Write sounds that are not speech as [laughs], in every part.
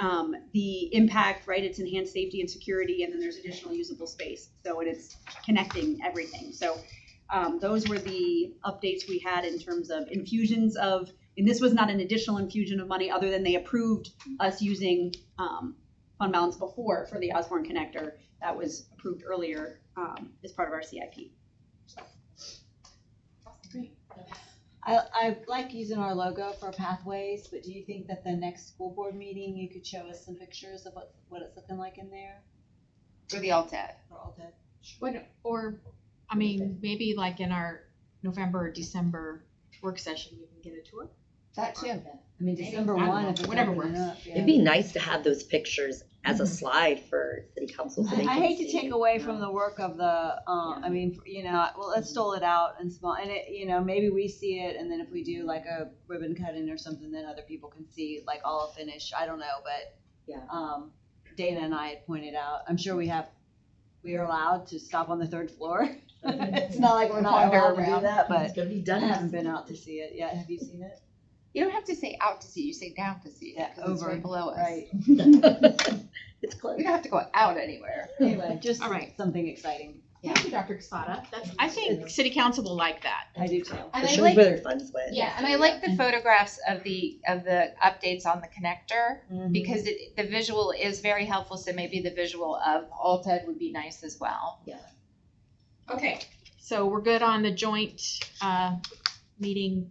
um, the impact, right, it's enhanced safety and security, and then there's additional usable space. So, and it's connecting everything. So, um, those were the updates we had in terms of infusions of, and this was not an additional infusion of money, other than they approved us using, um, fund balance before for the Osborne Connector. That was approved earlier, um, as part of our CIP. I, I like using our logo for pathways, but do you think that the next school board meeting, you could show us some pictures of what, what it's looking like in there? For the LTAD. For all the- What, or, I mean, maybe like in our November or December work session, we can get a tour? That too. I mean, December one, if it's Whatever opening works. up, yeah. It'd be nice to have those pictures as a slide for city council so Mm-hmm. I they I can hate to see. take away from the work of the, um, I mean, you know, well, let's stole it out and small, and it, you know, maybe we see it, and then if we do like a ribbon cutting or something, then other people can see, like all finished, I don't know, but. Yeah. Um, Dana and I had pointed out, I'm sure we have, we are allowed to stop on the third floor. [laughs] It's not like we're not Wander allowed to do around. that, It's but gonna be I done. haven't been out to see it yet, have you seen [laughs] it? You don't have to say out to sea, you say down to sea, Yeah, because it's over, right below us. Right, [laughs] It's We close. don't have to go out anywhere. anyway, just All right. something exciting, Thank you, Dr. Casada. That's, I think city council will like that. I do too. And It I shows like, where their funds went. yeah, and I like the photographs of the, of the updates on the connector, Mhm. because it, the visual is very helpful, so maybe the visual of LTAD would be nice as well. Okay. So we're good on the joint, uh, meeting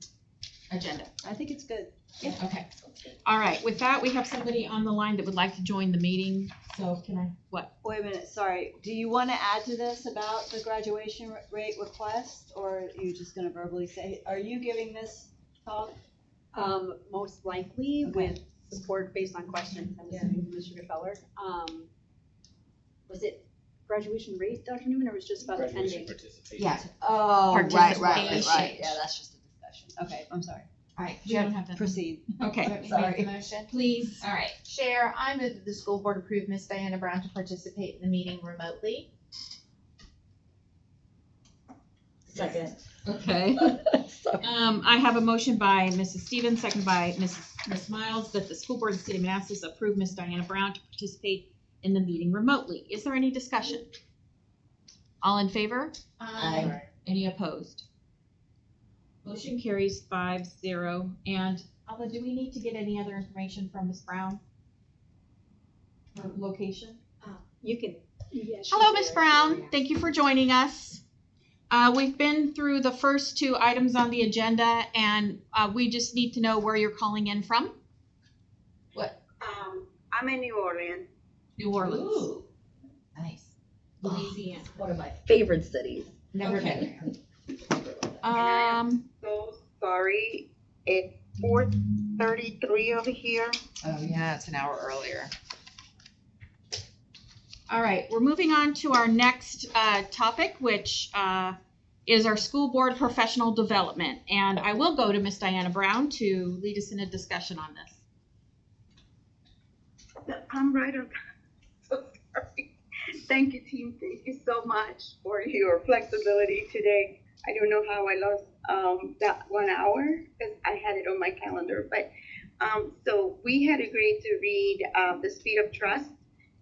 agenda. I think it's good. Okay. All right, with that, we have somebody on the line that would like to join the meeting, so can I, what? Wait a minute, sorry, do you wanna add to this about the graduation r- rate request, or are you just gonna verbally say, are you giving this talk? Um, most likely Okay. with support based on questions, I'm assuming from Mr. Gefeller. Um, was it graduation rate, Dr. Newman, or was it just about Graduation attending? participation. Yeah, Oh, right, right, right, right, Participation. yeah, that's just a discussion, okay, I'm sorry, Alright. do you have- have that. proceed. Okay, Sorry. motion? please. All right, Chair, I move that the school board approve Miss Diana Brown to participate in the meeting remotely. Second. Okay. [laughs] So, Um, I have a motion by Mrs. Stevens, second by Mrs. Ms. Miles, that the school board of the city of Manassas approve Miss Diana Brown to participate in the meeting remotely. Is there any discussion? All in favor? Um, Aye. Any opposed? Motion carries five zero. And Alva, do we need to get any other information from Ms. Brown? Her location? You can, yeah. she Hello, can. Miss Brown. Thank you for joining us. Uh, we've been through the first two items on the agenda, and uh, we just need to know where you're calling in from. Um, I'm in New Orleans. New Orleans, Ooh, Nice. Oh, Louisiana. One of my favorite cities. Never Okay. been there. Um, So sorry, it's four thirty-three over here. Oh, yeah, it's an hour earlier. all right, we're moving on to our next uh, topic, which uh, is our school board professional development. And I will go to Miss Diana Brown to lead us in a discussion on this. [laughs] I'm right on. So sorry. Thank you, team. Thank you so much for your flexibility today. I don't know how I lost um, that one hour because I had it on my calendar. But um, so we had agreed to read uh, the Speed of Trust,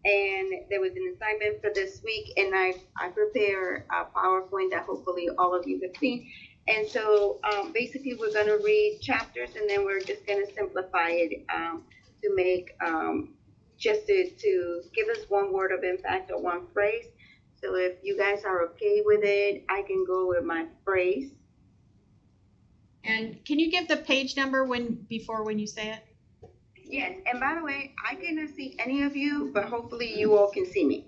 and there was an assignment for this week, and I I prepared a PowerPoint that hopefully all of you have seen. And so um, basically, we're going to read chapters, and then we're just going to simplify it um, to make um, just to, to give us one word of impact or one phrase. So if you guys are okay with it, I can go with my phrase. And can you give the page number when, before when you say it? Yes, and by the way, I cannot see any of you, but hopefully you all can see me.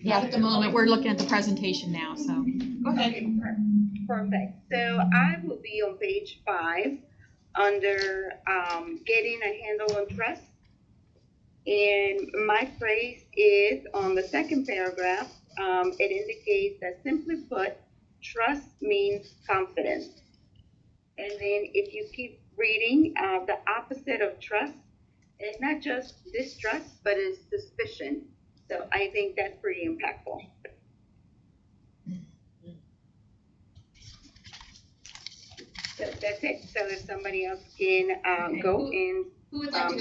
Yeah, at the moment, we're looking at the presentation now, so. Okay, per- perfect. So I will be on page five under um, getting a handle on trust. And my phrase is on the second paragraph, um, it indicates that simply put, trust means confidence. And then if you keep reading, uh, the opposite of trust, it's not just distrust, but it's suspicion. So I think that's pretty impactful. So that's it. So if somebody else uh, can, uh, go in Who would like to Um,